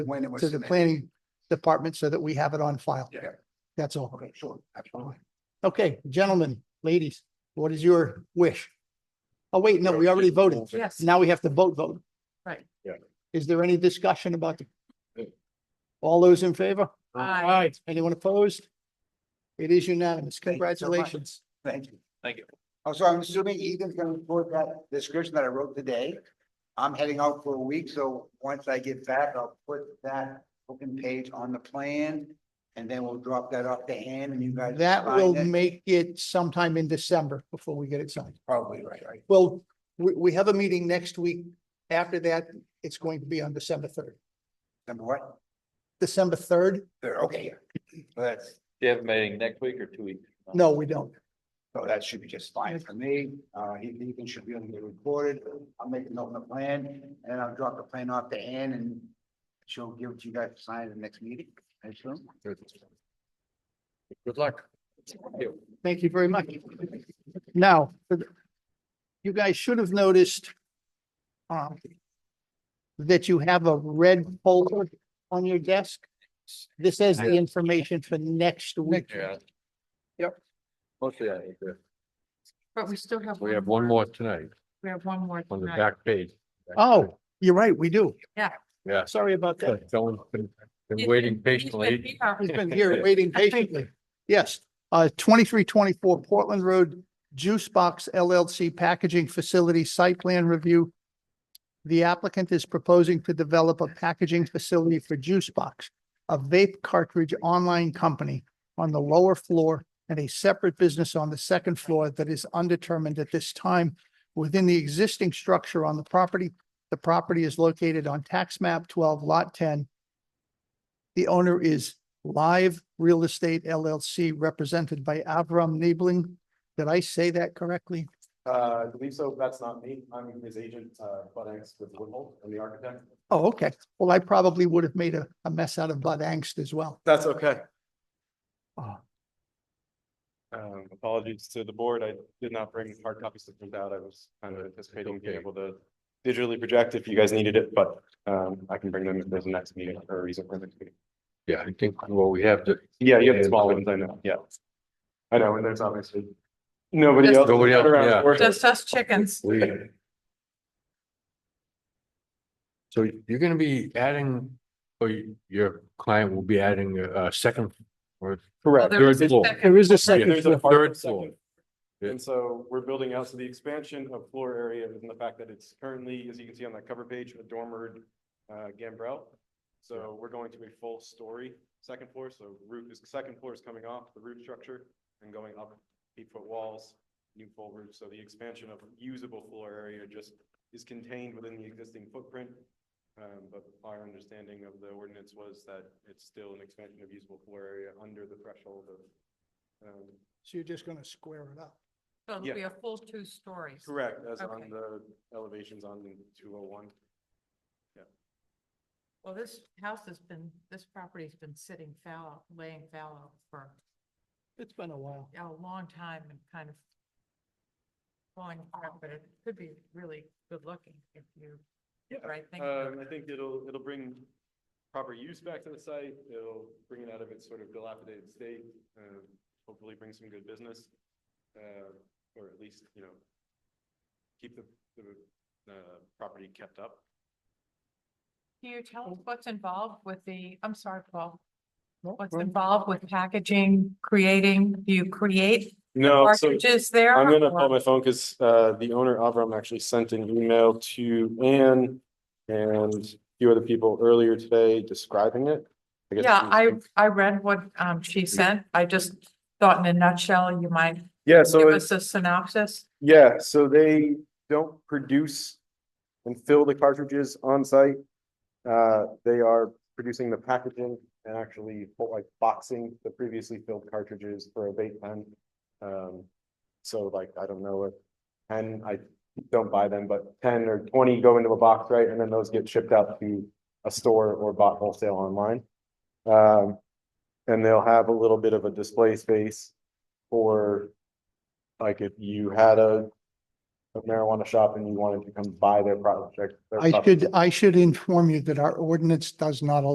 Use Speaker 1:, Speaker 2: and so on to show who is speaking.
Speaker 1: when it was
Speaker 2: to the
Speaker 1: submitted.
Speaker 2: planning department so that we have it on file.
Speaker 1: Yeah,
Speaker 2: That's all.
Speaker 1: okay, sure, absolutely.
Speaker 2: Okay, gentlemen, ladies, what is your wish? Oh, wait, no, we already voted.
Speaker 3: Yes.
Speaker 2: Now we have to vote, vote.
Speaker 3: Right.
Speaker 4: Yeah.
Speaker 2: Is there any discussion about the? All those in favor?
Speaker 3: Aye.
Speaker 2: Anyone opposed? It is unanimous.
Speaker 1: Thank you so much.
Speaker 2: Congratulations.
Speaker 1: Thank you.
Speaker 5: Thank you.
Speaker 1: Oh, so I'm assuming Ethan's gonna report that description that I wrote today. I'm heading out for a week, so once I get back, I'll put that open page on the plan. And then we'll drop that off to hand and you guys.
Speaker 2: That
Speaker 1: sign
Speaker 2: will
Speaker 1: it.
Speaker 2: make it sometime in December before we get it signed.
Speaker 1: Probably right, right.
Speaker 2: Well, we, we have a meeting next week. After that, it's going to be on December third.
Speaker 1: Number what?
Speaker 2: December third?
Speaker 1: There, okay, yeah. So That's,
Speaker 5: Do you have a meeting next week or two weeks?
Speaker 2: No, we don't.
Speaker 1: so that should be just fine for me. Uh, he- Ethan should be able to get recorded. I'll make a note on the plan and I'll drop the plan off to hand and she'll give it to you guys to sign at the next meeting, I assume.
Speaker 5: Good luck.
Speaker 2: Thank you very much. Now, you guys should have noticed um, that you have a red folder on your desk. This has the information for next week.
Speaker 5: Yeah.
Speaker 2: Yep.
Speaker 4: Mostly, I think, uh,
Speaker 3: But we still have.
Speaker 4: we have one more tonight
Speaker 3: We have one more
Speaker 4: on the
Speaker 3: tonight.
Speaker 4: back page.
Speaker 2: Oh, you're right, we do.
Speaker 4: Yeah.
Speaker 2: Sorry about that.
Speaker 4: Someone's been, been
Speaker 3: He's
Speaker 4: waiting
Speaker 3: been- he's been
Speaker 4: patiently.
Speaker 3: here.
Speaker 2: He's been here waiting patiently. Yes, uh, twenty-three twenty-four Portland Road Juice Box LLC Packaging Facility Site Plan Review. The applicant is proposing to develop a packaging facility for Juice Box, a vape cartridge online company on the lower floor and a separate business on the second floor that is undetermined at this time. Within the existing structure on the property, the property is located on tax map twelve lot ten. The owner is Live Real Estate LLC, represented by Avram Niebling. Did I say that correctly?
Speaker 6: Uh, I believe so. That's not me. I'm his agent, uh, Bud Angst with Woodhull and the architect.
Speaker 2: Oh, okay. Well, I probably would have made a, a mess out of Bud Angst as well.
Speaker 6: That's okay.
Speaker 2: Oh,
Speaker 6: Um, apologies to the board. I did not bring hard copies to print out. I was kind of anticipating being
Speaker 4: okay.
Speaker 6: able to digitally project if you guys needed it, but, um, I can bring them if there's a next meeting or a reason for the next meeting.
Speaker 4: Yeah, I think, well, we have to,
Speaker 6: Yeah, you have
Speaker 4: Yeah.
Speaker 6: the small ones, I know, yeah. I know, and there's obviously nobody
Speaker 3: Just-
Speaker 6: else.
Speaker 4: Nobody else,
Speaker 6: around
Speaker 4: yeah.
Speaker 6: for it.
Speaker 3: Just us chickens.
Speaker 4: we. So you're gonna be adding, or you- your client will be adding a a second or
Speaker 3: Well,
Speaker 6: Correct.
Speaker 3: there is
Speaker 4: third
Speaker 3: a
Speaker 4: floor.
Speaker 3: second-
Speaker 2: There is a
Speaker 4: Yeah,
Speaker 2: second.
Speaker 6: There's a part
Speaker 4: Third
Speaker 6: of second
Speaker 4: floor. Yeah.
Speaker 6: And so we're building out, so the expansion of floor area and the fact that it's currently, as you can see on that cover page, a dormered uh, gambrel. So we're going to a full story, second floor, so roof is, second floor is coming off the roof structure and going up eight foot walls, new full roof, so the expansion of usable floor area just is contained within the existing footprint. Um, but our understanding of the ordinance was that it's still an expansion of usable floor area under the threshold of um,
Speaker 2: So you're just gonna square it up.
Speaker 3: So it'll
Speaker 6: Yeah.
Speaker 3: be a full two stories.
Speaker 6: Correct, as on
Speaker 3: Okay.
Speaker 6: the elevations on two oh one.
Speaker 3: Well, this house has been, this property's been sitting fallow, laying fallow for
Speaker 2: It's been a while.
Speaker 3: a long time and kind of falling apart, but it could be really good looking if you,
Speaker 6: Yeah.
Speaker 3: right, think
Speaker 6: Um, I think it'll, it'll bring proper use back to the site, it'll bring it out of its sort of dilapidated state, um, hopefully bring some good business. Uh, or at least, you know, keep the, the, uh, property kept up.
Speaker 3: Can you tell us what's involved with the, I'm sorry, Paul,
Speaker 2: No,
Speaker 3: what's
Speaker 2: right.
Speaker 3: involved with packaging, creating, do you create
Speaker 6: No, Oh, so
Speaker 3: cartridges there?
Speaker 6: I'm gonna
Speaker 3: or-
Speaker 6: pull my phone because uh the owner Avram actually sent an email to Anne and a few other people earlier today describing it. I guess
Speaker 3: Yeah,
Speaker 6: we-
Speaker 3: I, I read what um she sent. I just thought in a nutshell, you might
Speaker 6: Yeah,
Speaker 3: give
Speaker 6: so it's,
Speaker 3: us a synopsis.
Speaker 6: yeah, so they don't produce and fill the cartridges on site. Uh, they are producing the packaging and actually like boxing the previously filled cartridges for a vape pen. Um, so like, I don't know if ten, I don't buy them, but ten or twenty go into a box, right? And then those get shipped out to a store or bought wholesale online. Um, and they'll have a little bit of a display space for like if you had a a marijuana shop and you wanted to come buy their product. their
Speaker 2: I
Speaker 6: product.
Speaker 2: should, I should inform you that our ordinance does not allow